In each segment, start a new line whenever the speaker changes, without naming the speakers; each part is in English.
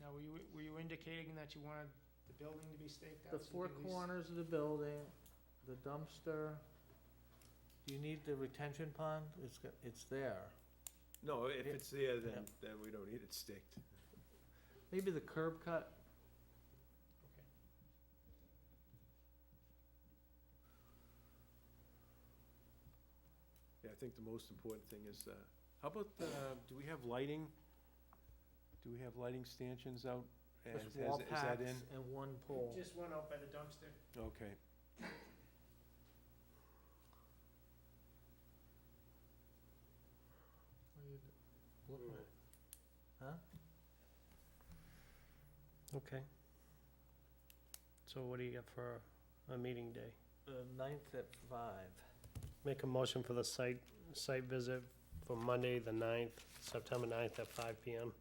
Now, were you, were you indicating that you wanted the building to be staked out? so
The
you
four
could at least-
corners of the building, the dumpster, do you need the retention pond? It's, go- it's there.
No, if
Yeah.
it's there, then, then we don't need it staked.
Maybe the curb cut,
Okay.
Yeah, I think the most important thing is, uh, how about, the- do we have lighting? Do we have lighting stanchions out? Is-
just
is-
wall
Is
packs
that in?
and one pole.
Just one out by the dumpster.
Okay.
What are you do- looking at?
Mm-hmm.
Huh?
Okay. So what do you got for a meeting day?
The ninth at five.
Make a motion for the site, site visit for Monday, the 9th, September 9th at five PM.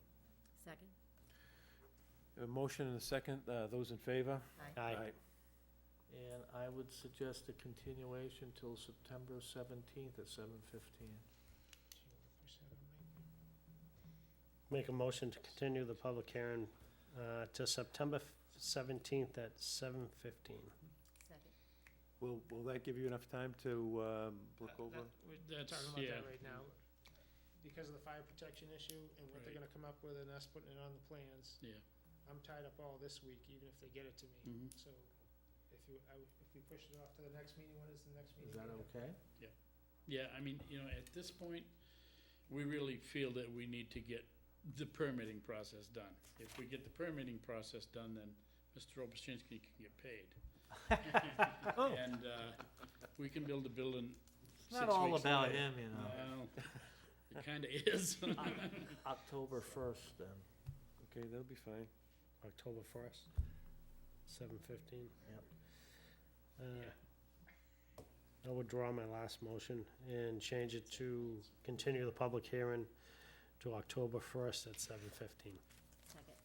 Second?
A motion and a second, uh, those in favor?
Aye.
And I would suggest a continuation till September seventeenth at seven fifteen.
Make a motion to continue the public hearing uh, to September 17th at 7:15.
Second.
Will, will that give you enough time to um, look
That-
over?
that- We're we're
That's-
talking about that
yeah.
right now. Because of the fire protection issue and what they're
Right.
gonna come up with and us putting it on the plans.
Yeah. Mm-hmm.
I'm tied up all this week, even if they get it to me. So if you, I would- if we push it off to the next meeting, what is the next meeting?
Is that okay?
Yeah, I mean, you know, at this point, we really feel that we need to get the permitting process done. If we get the permitting process done, then Mr. Obaschinsky can get paid.
Oh.
And, uh, we can build a building
It's
six
not all
weeks
about
later.
him, you know.
Well, It kinda is.
October first then.
Okay, that'll be fine.
October 1st, 7:15.
Yep.
Uh, I withdraw my last motion and change it to continue the public hearing to October 1st at 7:15.
Second.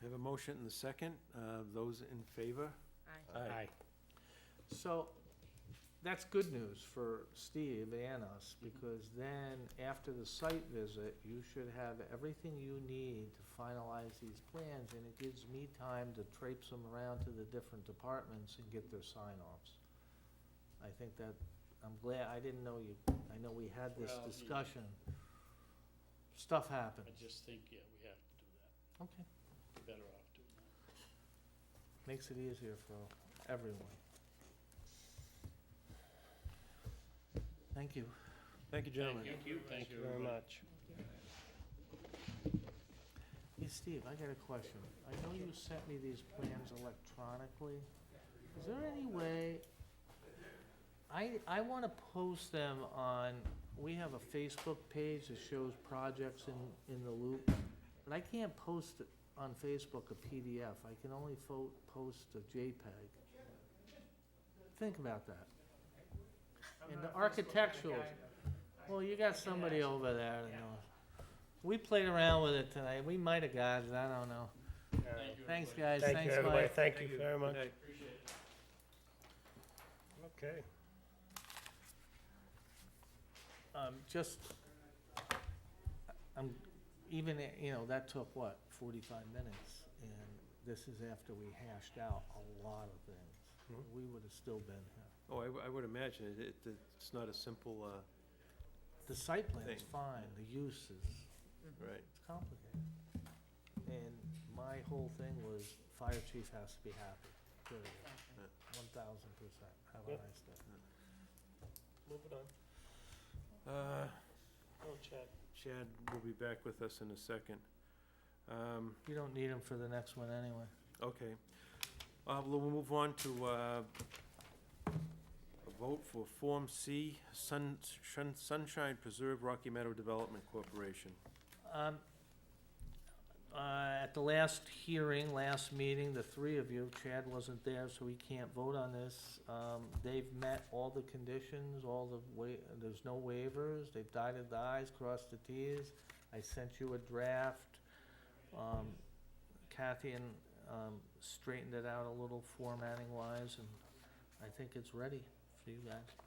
I Have a motion and a second, uh, those in favor?
Aye.
Aye.
So, that's good news for Steve and us,
Mm-hmm.
because then, after the site visit, you should have everything you need to finalize these plans, and it gives me time to traipse them around to the different departments and get their sign-offs. I think that, I'm glad, I didn't know you, I know we had this
Well, you-
discussion. Stuff
I
happens.
just think, yeah, we have to do that.
Okay,
We're Better off doing that.
makes it easier for everyone. Thank you.
Thank you, gentlemen.
Thank you, thank you
Very much.
Thank you.
Hey, Steve, I got a question. I know you sent me these plans electronically. Is there any way, I, I want to post them on, we have a Facebook page that shows projects in, in the loop, but I can't post it on Facebook a PDF. I can only fo- post a JPEG. Think about that.
I'm
And
not
the
a Facebook kinda
architectural-
guy, though.
Well, you got somebody over there that knows. We played around with it tonight. We might have got it, I don't know.
Thank you,
Thanks,
everybody.
guys.
Thank you,
Thanks,
everybody.
Mike.
Thank you very
Good
much.
night.
Appreciate it.
Okay.
Um, just, I'm, even, you know, that took what, forty-five minutes? And this is after we hashed out a lot of things.
Mhm.
We would have still been here.
Oh, I w- I would imagine it- it, it's not a simple, uh,
The site plan is
Thing.
fine, the use is,
right.
it's complicated. And my whole thing was, fire chief has to be happy, period,
Second.
one thousand percent. Have a
Yep.
nice day.
Moving on.
Uh,
Oh, Chad.
Chad will be back with us in a second. Um,
You don't need him for the next one anyway.
Okay. Uh, We'll we'll move on to uh, a vote for Form C, Sun Shun- Sunshine Preserve Rocky Meadow Development Corporation.
Um, uh, At the last hearing, last meeting, the three of you, Chad wasn't there, so he can't vote on this. Um, They've met all the conditions, all the wa, there's no waivers, they've dotted the i's, crossed the t's. I sent you a draft. Um, Kathy and um, straightened it out a little formatting wise, and I think it's ready for you guys.